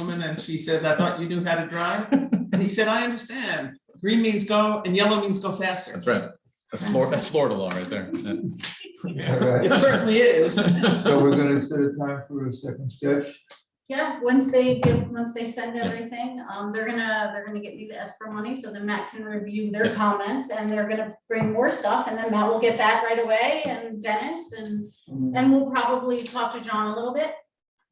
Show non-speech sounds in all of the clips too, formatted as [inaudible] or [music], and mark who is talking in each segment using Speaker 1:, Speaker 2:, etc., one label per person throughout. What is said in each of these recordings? Speaker 1: and she says, I thought you knew how to
Speaker 2: [laughs]
Speaker 1: drive. And he said, I understand. Green means go and yellow means go faster.
Speaker 3: That's right. That's Florida, that's Florida law right there. Yeah.
Speaker 4: All right,
Speaker 1: It certainly
Speaker 2: [laughs]
Speaker 1: is.
Speaker 4: so we're gonna set a time for a second sketch.
Speaker 5: Yeah, once they give, once they send everything, um, they're gonna, they're gonna get me the escrow money, so then Matt can review their
Speaker 3: Yeah.
Speaker 5: comments, and they're gonna bring more stuff, and then Matt will get that right away, and Dennis, and, and we'll probably talk to John a little bit.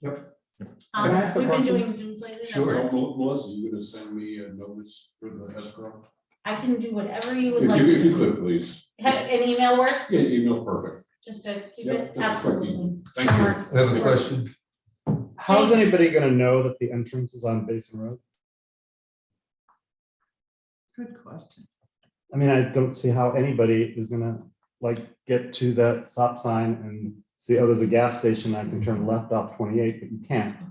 Speaker 4: Yep. Can I
Speaker 5: Um,
Speaker 4: ask a
Speaker 5: we've been
Speaker 4: question?
Speaker 5: doing Zooms lately. that's
Speaker 4: Sure.
Speaker 5: why.
Speaker 6: Melissa, you gonna send me a notice for the escrow?
Speaker 5: I can do whatever you
Speaker 6: If
Speaker 5: would like,
Speaker 6: you, if you could, please.
Speaker 5: have an email work,
Speaker 6: Yeah, email perfect.
Speaker 5: just to keep
Speaker 6: Yep,
Speaker 5: it,
Speaker 6: just a quick
Speaker 5: absolutely.
Speaker 6: Thank you.
Speaker 5: Sure.
Speaker 4: I have a question.
Speaker 2: How's
Speaker 5: James.
Speaker 2: anybody gonna know that the entrance is on Basin Road?
Speaker 1: Good question.
Speaker 2: I mean, I don't see how anybody is gonna like get to that stop sign and see, oh, there's a gas station, I can turn left off twenty-eight, but you can't.
Speaker 3: [laughs]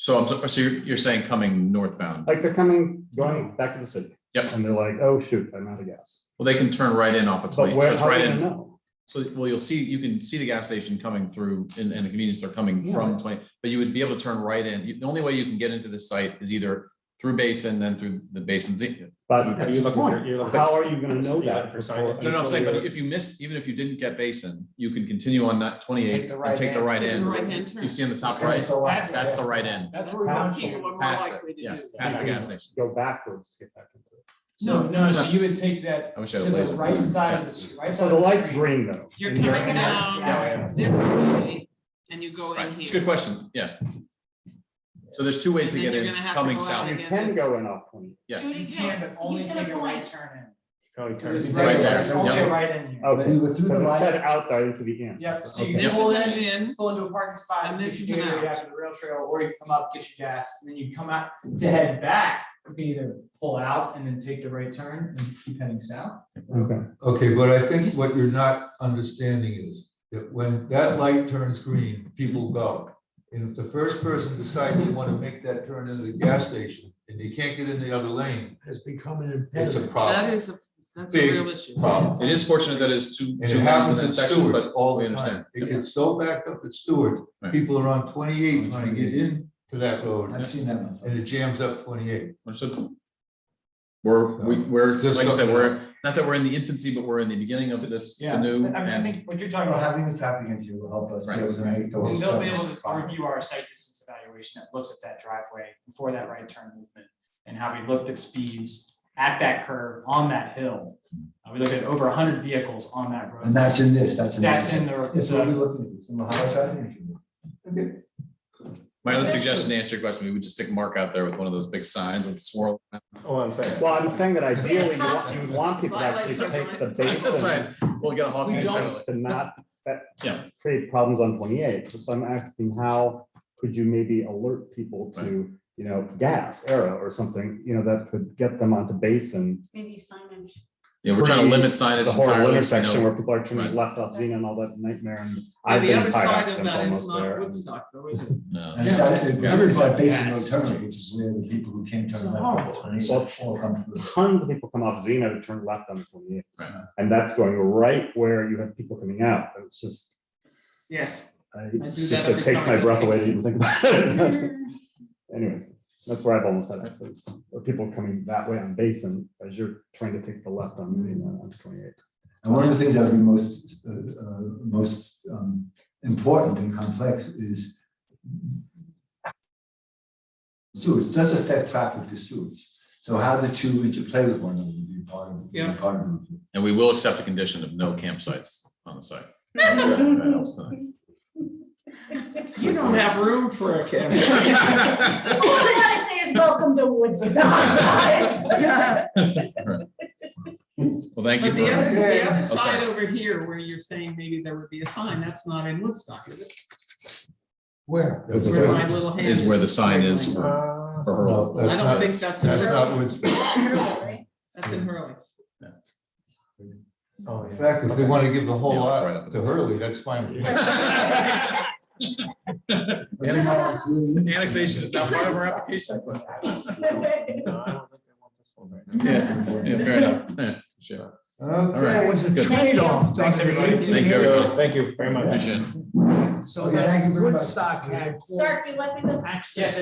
Speaker 3: So I'm, so- so you're, you're saying coming northbound.
Speaker 2: Like they're coming, going back to the city.
Speaker 3: Yep.
Speaker 2: And they're like, oh, shoot, I'm out of gas.
Speaker 3: Well, they can turn right in off of
Speaker 2: But
Speaker 3: twenty, so
Speaker 2: where,
Speaker 3: it's
Speaker 2: how are
Speaker 3: right
Speaker 2: they gonna
Speaker 3: in.
Speaker 2: know?
Speaker 3: So, well, you'll see, you can see the gas station coming through and, and the convenience store coming
Speaker 2: Yeah.
Speaker 3: from twenty, but you would be able to turn right in. You- The only way you can get into this site is either through Basin, then through the Basin Z.
Speaker 2: But
Speaker 3: Yeah,
Speaker 2: that's
Speaker 7: you're
Speaker 2: the
Speaker 7: looking for-
Speaker 2: point.
Speaker 7: you're looking
Speaker 2: How
Speaker 7: for-
Speaker 2: are you gonna
Speaker 7: you're
Speaker 2: know
Speaker 7: looking
Speaker 2: that?
Speaker 7: for
Speaker 2: before-
Speaker 7: signage.
Speaker 3: No, no, I'm saying, but
Speaker 7: Until
Speaker 3: if you miss, even if you didn't get Basin, you can continue on that twenty-eight and take the right in.
Speaker 1: Right-hand turn.
Speaker 3: You see on the top right,
Speaker 1: That's-
Speaker 3: that's the right in.
Speaker 1: That's
Speaker 2: how
Speaker 1: people are more
Speaker 3: Past it,
Speaker 1: likely to do
Speaker 3: yes,
Speaker 1: that.
Speaker 3: past the gas station.
Speaker 2: Go backwards to get back into it.
Speaker 8: So, no, so you would take that
Speaker 3: I wish I
Speaker 8: to
Speaker 3: had a
Speaker 8: the
Speaker 3: laser.
Speaker 8: right side of the,
Speaker 3: Yeah.
Speaker 8: street, right
Speaker 2: So
Speaker 8: side
Speaker 2: the
Speaker 8: of the
Speaker 2: light's
Speaker 8: street.
Speaker 2: green though.
Speaker 1: You're
Speaker 2: and
Speaker 1: coming down.
Speaker 8: Yeah, yeah.
Speaker 1: This way, and you go in
Speaker 3: Right, it's a
Speaker 1: here.
Speaker 3: good question, yeah. So there's two ways to
Speaker 1: And
Speaker 3: get
Speaker 1: then you're
Speaker 3: in,
Speaker 1: gonna have to
Speaker 3: coming
Speaker 1: go out
Speaker 3: south,
Speaker 2: You
Speaker 1: again.
Speaker 2: can go in off twenty.
Speaker 3: yes.
Speaker 5: Judy
Speaker 8: You can, but only
Speaker 5: He's got a
Speaker 8: take a
Speaker 5: point.
Speaker 8: right turn
Speaker 7: Probably
Speaker 8: in.
Speaker 7: turns
Speaker 8: It's
Speaker 7: into
Speaker 3: Right
Speaker 8: right
Speaker 7: the-
Speaker 3: there,
Speaker 8: there, only
Speaker 3: yeah.
Speaker 8: right in here.
Speaker 2: Okay.
Speaker 4: you were through the
Speaker 2: So it
Speaker 4: light.
Speaker 2: said out there into the end.
Speaker 8: Yes, so you
Speaker 2: Okay.
Speaker 8: can
Speaker 1: This
Speaker 8: pull
Speaker 1: is
Speaker 8: in,
Speaker 1: an in,
Speaker 8: pull into a parking spot,
Speaker 1: And
Speaker 8: get
Speaker 1: this
Speaker 8: your
Speaker 1: is an
Speaker 8: gateway
Speaker 1: out.
Speaker 8: after the rail trail, or you come up, get your gas, and then you come out to head back. You can either pull out and then take the right turn and keep heading south.
Speaker 2: Okay.
Speaker 4: Okay, but I think what you're not understanding is that when that light turns green, people go. And if the first person decides they want to make that turn into the gas station and they can't get in the other lane,
Speaker 9: has become an
Speaker 4: it's a
Speaker 9: impediment.
Speaker 1: that
Speaker 4: problem.
Speaker 1: is, a that's a real issue.
Speaker 4: Problem.
Speaker 3: It is fortunate that it's two.
Speaker 4: And
Speaker 3: two
Speaker 4: it
Speaker 3: lanes in
Speaker 4: happens at
Speaker 3: that section,
Speaker 4: Stewart's
Speaker 3: but
Speaker 4: all
Speaker 3: we
Speaker 4: the
Speaker 3: understand.
Speaker 4: time. It gets so backed up at Stewart's,
Speaker 3: Right.
Speaker 4: people are on twenty-eight trying to get in to that road
Speaker 9: I've seen that myself.
Speaker 4: and it jams up twenty-eight.
Speaker 3: Understood. We're, we, we're,
Speaker 4: Just
Speaker 3: like I said,
Speaker 4: something-
Speaker 3: we're, not that we're in the infancy, but we're in the beginning of this
Speaker 8: Yeah,
Speaker 3: new
Speaker 8: I mean, I
Speaker 3: and
Speaker 8: think what you're talking
Speaker 9: Well,
Speaker 8: about,
Speaker 9: Having the tapping into will help us. be
Speaker 3: Right.
Speaker 9: able to make
Speaker 8: then
Speaker 9: those
Speaker 8: they'll be able
Speaker 9: steps.
Speaker 8: to review our site distance evaluation that looks at that driveway before that right turn movement. And how we looked at speeds at that curve on that hill. Uh, We looked at over hundred vehicles on that road.
Speaker 9: And that's in this, that's in.
Speaker 8: That's
Speaker 9: this.
Speaker 8: in uh, the,
Speaker 9: That's what we're
Speaker 8: the-
Speaker 9: looking at, it's in the highest avenue.
Speaker 3: my other suggestion to answer your question, we would just stick Mark out there with one of those big signs and swirl. [laughs]
Speaker 7: Oh, I'm saying.
Speaker 2: Well, I'm saying that ideally, you want, you would want people to actually take the
Speaker 3: That's
Speaker 2: basin
Speaker 3: right. We'll get a hawk.
Speaker 8: We don't-
Speaker 3: All
Speaker 2: to not that
Speaker 3: Yeah.
Speaker 2: create problems on twenty-eight. So I'm asking how could you maybe alert people to, you know, gas, arrow or something, you know, that could get them onto basin.
Speaker 5: Maybe signage.
Speaker 3: Yeah, we're trying to limit
Speaker 2: The
Speaker 3: signage
Speaker 2: whole
Speaker 3: entirely.
Speaker 2: intersection
Speaker 3: you know.
Speaker 2: where people are
Speaker 3: Right.
Speaker 2: turning left off Xena and all that nightmare and.
Speaker 1: And
Speaker 2: I've
Speaker 1: the
Speaker 2: been
Speaker 1: other
Speaker 2: tied up
Speaker 1: side of
Speaker 2: since
Speaker 1: that is
Speaker 2: almost there,
Speaker 1: not
Speaker 2: and-
Speaker 1: Woodstock, though, is it?
Speaker 3: No.
Speaker 9: And it's that, it- remember it's that
Speaker 8: Yeah.
Speaker 9: basin road turn, which is where the people who came
Speaker 8: It's
Speaker 9: turn left
Speaker 8: horrible.
Speaker 9: on twenty-eight all come through.
Speaker 2: tons of people come off Xena to turn left on twenty-eight.
Speaker 3: Right.
Speaker 2: And that's going right where you have people coming out. It's just,
Speaker 1: Yes.
Speaker 2: I,
Speaker 1: that
Speaker 2: just
Speaker 1: every
Speaker 2: it takes
Speaker 1: time I
Speaker 2: my
Speaker 1: go
Speaker 2: breath
Speaker 1: to
Speaker 2: away
Speaker 1: Vegas.
Speaker 2: to even think about it. [laughs] Anyways, that's where I've almost had accidents, or people coming that way on Basin as you're trying to take the left on, you know, on twenty-eight.
Speaker 9: And one of the things that would be most, uh, uh, most um, important and complex is Stewards, does affect traffic to Stewards. So how the two interplay with one another would be part of. would be
Speaker 1: Yeah.
Speaker 9: Part of. the-
Speaker 3: And we will accept a condition of no campsites on the
Speaker 8: [laughs]
Speaker 3: site. That
Speaker 6: [laughs]
Speaker 5: [laughs]
Speaker 3: helps tonight.
Speaker 1: You don't have room for a [laughs] camera.
Speaker 3: Right.
Speaker 5: All I gotta say is welcome to [laughs] Woodstock.
Speaker 3: Well, thank you
Speaker 1: But the
Speaker 3: for,
Speaker 1: other, the
Speaker 3: Oh,
Speaker 1: other
Speaker 3: sorry.
Speaker 1: side over here, where you're saying maybe there would be a sign, that's not in Woodstock, is it?
Speaker 4: Where?
Speaker 1: Where my little hand
Speaker 3: is where the sign is
Speaker 1: That's
Speaker 3: for,
Speaker 7: Uh,
Speaker 3: for
Speaker 4: No,
Speaker 3: her.
Speaker 4: that's
Speaker 1: I don't
Speaker 4: not-
Speaker 1: think that's in
Speaker 4: That's not
Speaker 1: Hurley.
Speaker 4: what's,
Speaker 1: That's in Hurley.
Speaker 7: oh,
Speaker 4: in
Speaker 7: yeah.
Speaker 4: fact, if they want to give the whole
Speaker 3: Yeah, right
Speaker 4: lot
Speaker 3: up
Speaker 4: to Hurley, that's fine.
Speaker 3: [laughs]
Speaker 9: But you know, it's really-
Speaker 3: Annexation is not part of our application, but-
Speaker 7: No, I don't think they want this one right now.
Speaker 2: [laughs]
Speaker 3: Yeah, yeah, fair enough. Yeah, sure.
Speaker 4: Okay,
Speaker 3: right.
Speaker 4: what's the
Speaker 3: Good.
Speaker 4: trade-off?
Speaker 8: Thanks, everybody.
Speaker 3: Thank you, everyone.
Speaker 7: Thank you very much.
Speaker 3: Appreciate it.
Speaker 9: Okay, thank you very much.
Speaker 8: Woodstock had
Speaker 5: Stark, you left me this.
Speaker 8: access